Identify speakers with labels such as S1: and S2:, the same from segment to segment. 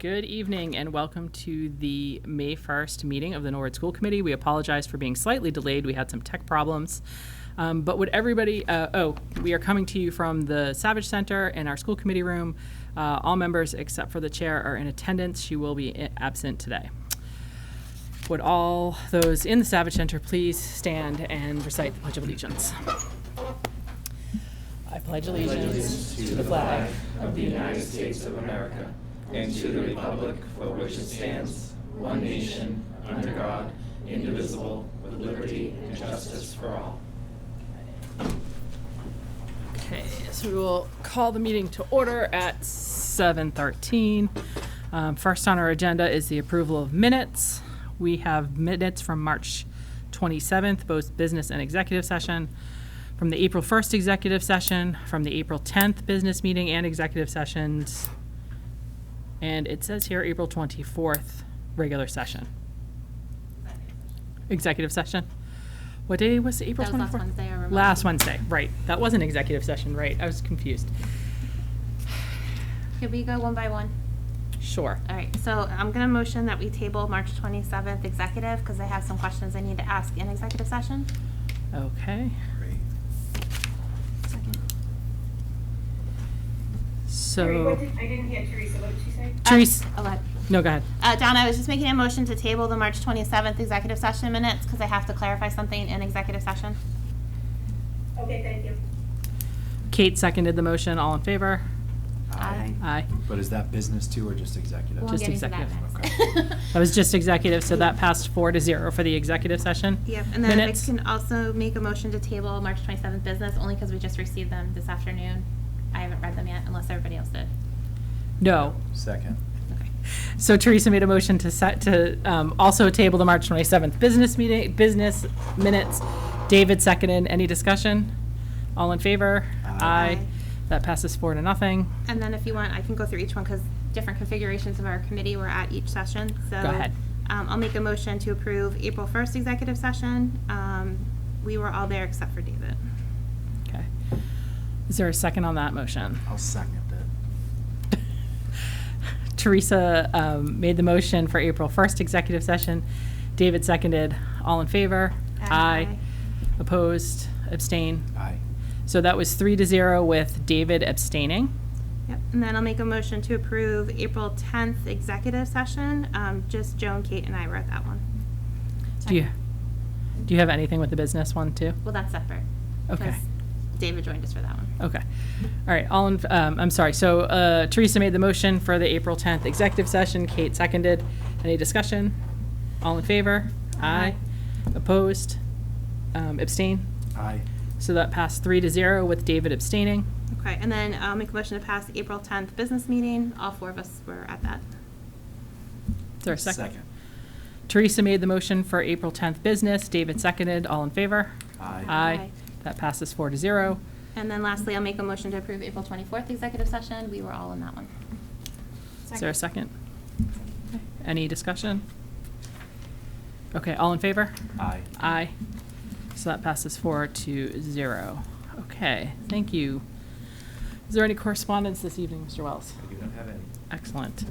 S1: Good evening and welcome to the May 1st meeting of the Norwood School Committee. We apologize for being slightly delayed. We had some tech problems. Um, But would everybody, uh, oh, we are coming to you from the Savage Center in our school committee room. Uh, All members except for the chair are in attendance. She will be i- absent today. Would all those in the Savage Center please stand and recite the Pledge of Allegiance? I pledge allegiance Okay, so we will call the meeting to order at 7:13. Um, First on our agenda is the approval of minutes. We have minutes from March 27th, both business and executive session, from the April 1st executive session, from the April 10th business meeting and executive sessions, and it says here April 24th, regular session. Executive session? What day was the April
S2: That
S1: 24th?
S2: was last Wednesday, I remember.
S1: Last Wednesday, right. That was an executive session, right. I was confused.
S2: Could we go one by one?
S1: Sure.
S2: All right, so I'm gonna motion that we table March twenty-seventh executive, because I have some questions I need to ask in executive session. Uh,
S1: Okay.
S3: Sorry,
S1: So,
S3: what did- I didn't hear Teresa, what did she say?
S1: Therese,
S2: Oh, go ahead.
S1: no, go ahead.
S2: Uh, Don, I was just making a motion to table the March twenty-seventh executive session minutes, because I have to clarify something in executive session.
S3: Okay, thank you.
S1: Kate seconded the motion. All in favor?
S2: Aye.
S1: Aye.
S4: But is that business too or just executive?
S2: We'll
S1: Just
S2: get into that
S4: executive,
S2: next.
S1: That was just executive, so that passed four to zero for the executive session.
S2: Yep, and then I
S1: Minutes.
S2: can also make a motion to table March twenty-seventh business, only because we just received them this afternoon. I haven't read them yet, unless everybody else did.
S1: No.
S4: Second.
S2: Okay.
S1: So Teresa made a motion to set, to um, also table the March 27th business meeting, business minutes. David seconded. Any discussion? All in favor?
S4: Aye.
S2: Aye.
S1: That passes four to nothing.
S2: And then if you want, I can go through each one because different configurations of our committee were at each session, so.
S1: Go ahead.
S2: Um, I'll make a motion to approve April first executive session. Um, we were all there except for David.
S1: Okay. Is there a second on that motion?
S4: I'll second it.
S1: Teresa um, made the motion for April 1st executive session. David seconded. All in favor?
S2: Aye.
S1: Opposed? Abstain?
S4: Aye.
S1: So that was three to zero with David abstaining.
S2: Yep, and then I'll make a motion to approve April tenth executive session. Um, just Joan, Kate, and I were at that one.
S1: Do you, do you have anything with the business one too?
S2: Well, that's separate.
S1: Okay.
S2: 'cause David joined us for that one.
S1: Okay. All right, all in, um, I'm sorry, so, uh, Teresa made the motion for the April tenth executive session, Kate seconded. Any discussion? All in favor? Aye. Opposed? Um, abstain?
S4: Aye.
S1: So that passed three to zero with David abstaining.
S2: Okay, and then I'll make a motion to pass April tenth business meeting. All four of us were at that.
S1: Is there a second? Teresa made the motion for April tenth business, David seconded, all in favor?
S4: Aye.
S1: Aye.
S2: Aye.
S1: That passes four to zero.
S2: And then lastly, I'll make a motion to approve April 24th executive session. We were all in that one.
S1: Is there a second? Okay. Any discussion? Okay, all in favor?
S4: Aye.
S1: Aye. So that passes four to zero. Okay, thank you. Is there any correspondence this evening, Mr. Wells?
S4: You don't have any?
S1: Excellent.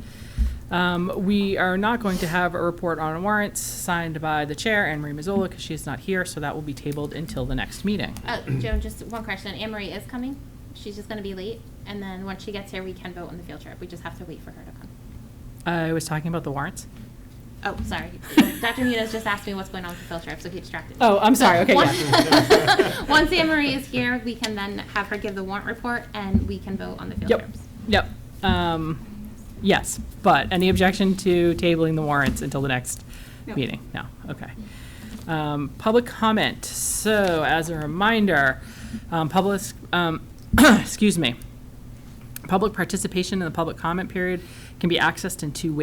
S1: Um, We are not going to have a report on warrants signed by the chair, Anne Marie Mazzola, because she is not here, so that will be tabled until the next meeting.
S2: Uh, Joan, just one question. Anne Marie is coming. She's just going to be late. And then once she gets here, we can vote on the field trip. We just have to wait for her to come.
S1: I was talking about the warrants.
S2: Oh, sorry. Dr. Munoz just asked me what's going on with the field trip, so he distracted me.
S1: Oh, I'm sorry, okay,
S2: Once-
S1: yeah.
S2: Once Anne Marie is here, we can then have her give the warrant report and we can vote on the field
S1: Yep.
S2: trips.
S1: Yep. Um, Yes, but any objection to tabling the warrants until the next
S2: No.
S1: meeting? No, okay. Um, Public comment, so as a reminder, um, public, um, excuse me, public participation in the public comment period can be accessed in two ways.